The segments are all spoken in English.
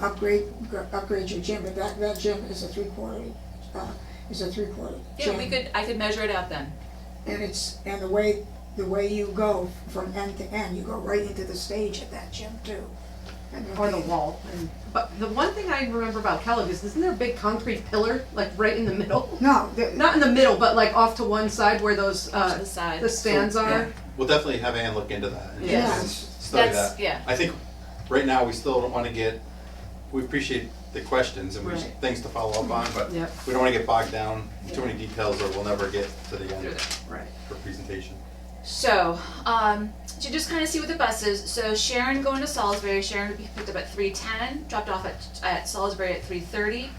upgrade, gr- upgrade your gym, but that, that gym is a three-quarter, uh, is a three-quarter gym. Yeah, we could, I could measure it out then. And it's, and the way, the way you go from end to end, you go right into the stage at that gym too. And or the they- wall. And, but the one thing I remember about Kellogg is isn't there a big concrete pillar like right in the middle? No, the- Not in the middle, but like off to one side where those To uh, the side. the stands So, yeah. are. We'll definitely have Ann look into that. and Yes. s- Study That's- that. yeah. I think right now, we still don't wanna get, we appreciate the questions and we Right. things to follow up on, but Yep. we don't wanna get bogged down in too many details or we'll never get to the Through end there. Right. for presentation. So, um, to just kind of see what the bus is, so Sharon going to Salisbury, Sharon would be picked up at three ten, dropped off at, at Salisbury at three thirty.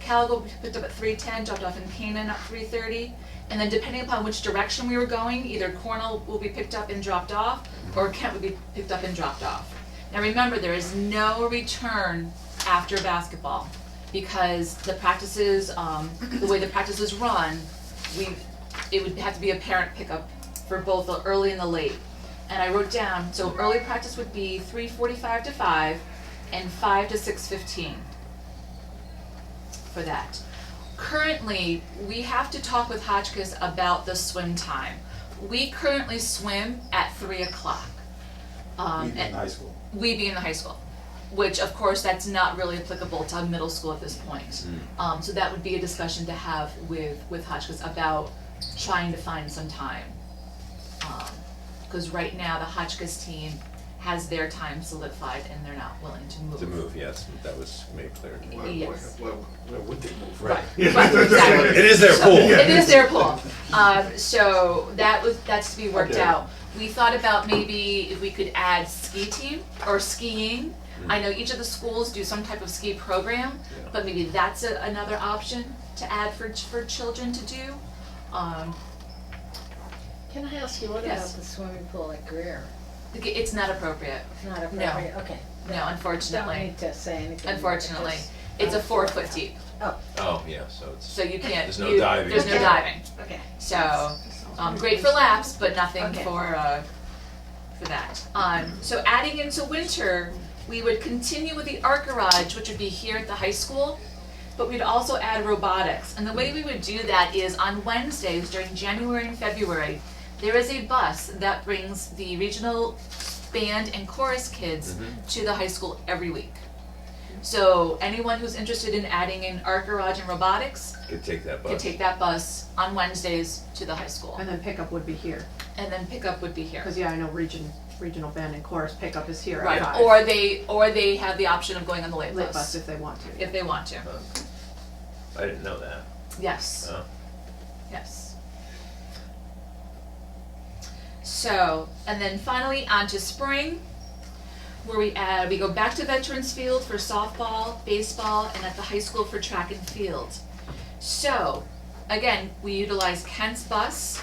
Cal will be picked up at three ten, dropped off in Canaan at three thirty. And then depending upon which direction we were going, either Cornell will be picked up and dropped off, or Kent would be picked up and dropped off. Now remember, there is no return after basketball, because the practices, um, the way the practices run, we, it would have to be a parent pickup for both the early and the late. And I wrote down, so early practice would be three forty-five to five and five to six fifteen for that. Currently, we have to talk with Hotchkiss about the swim time. We currently swim at three o'clock. Um, Even and- in high school. we being the high school, which of course that's not really applicable to middle school at this point. Um, so that would be a discussion to have with, with Hotchkiss about trying to find some time. Um, Cause right now the Hotchkiss team has their time solidified and they're not willing to move. To move, yes, that was made clear. Yes. Why, why would they move? Right, right, exactly. It is their pool. It is their pool. Um, so that was, that's to be worked Okay. out. We thought about maybe if we could add ski team or skiing. I know each of the schools do some type of ski program, Yeah. but maybe that's a, another option to add for, ch- for children to do. Um, Can I ask you, what about Yes. the swimming pool at Greer? like, it's not appropriate, It's not appropriate, okay. no, Don't unfortunately, need to say anything. more, unfortunately. just- It's a four foot deep, Oh, Oh, yeah, so it's, so you can't, There's no you- diving. There's no Okay. diving, okay. so, um, great for laps, but nothing Okay. for, uh, for that. Um, so adding into winter, we would continue with the art garage, which would be here at the high school, but we'd also add robotics. And the way we would do that is on Wednesdays during January and February, there is a bus that brings the regional band and chorus kids to the high school every week. So anyone who's interested in adding in art garage and robotics could take that could bus. take that bus on Wednesdays to the high school, And then pickup would be here. and then pickup would be here. Because yeah, I know region regional band and chorus pickup is here at Right, five. or they, or they have the option of going on the late late bus bus, if they want to. if they want to, I didn't know that. yes, Oh. yes. So, and then finally, on to spring, where we add, we go back to Veterans Field for softball, baseball, and at the high school for track and field. So, again, we utilize Kent's bus.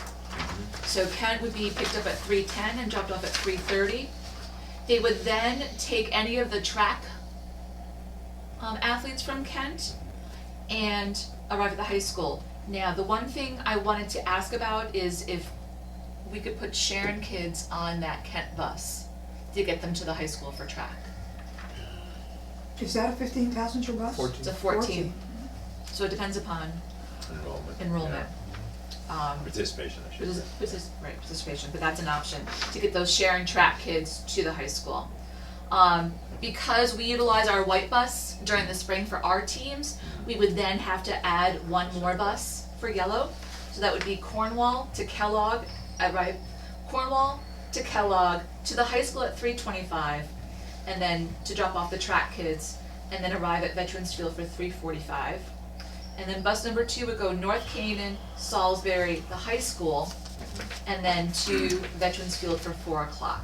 So Kent would be picked up at three ten and dropped off at three thirty. They would then take any of the track um, athletes from Kent and arrive at the high school. Now, the one thing I wanted to ask about is if we could put Sharon kids on that Kent bus to get them to the high school for track. Is that a fifteen passenger bus? Fourteen. It's a fourteen, so it depends upon Enrollment. enrollment. Um, yeah. Participation, I should say. Partic- partic- right, participation, but that's an option, to get those Sharon track kids to the high school. Um, because we utilize our white bus during the spring for our teams, we would then have to add one more bus for yellow. So that would be Cornwall to Kellogg, uh, right, Cornwall to Kellogg, to the high school at three twenty-five, and then to drop off the track kids, and then arrive at Veterans Field for three forty-five. And then bus number two would go North Canaan, Salisbury, the high school, and then to Veterans Field for four o'clock.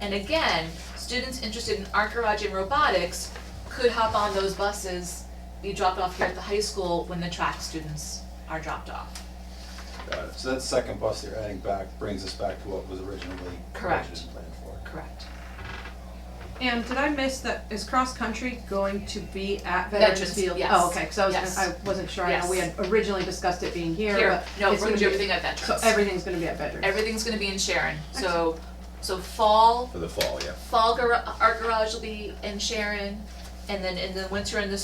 And again, students interested in art garage and robotics could hop on those buses, be dropped off here at the high school when the track students are dropped off. Got it. So that second bus they're adding back brings us back to what was originally Correct. budgeted and planned for. Correct. And did I miss that, is cross country going to be at Veterans, Veterans Field? yes. Oh, okay, cause I was, Yes. I wasn't sure, I know we Yes. had originally discussed it being here, Here, but no, we're it's gonna gonna do be- everything at So Veterans. everything's gonna be at Veterans. Everything's gonna be in Sharon, so, so fall, For the fall, yeah. fall gar- art garage will be in Sharon, and then, and then once you're in the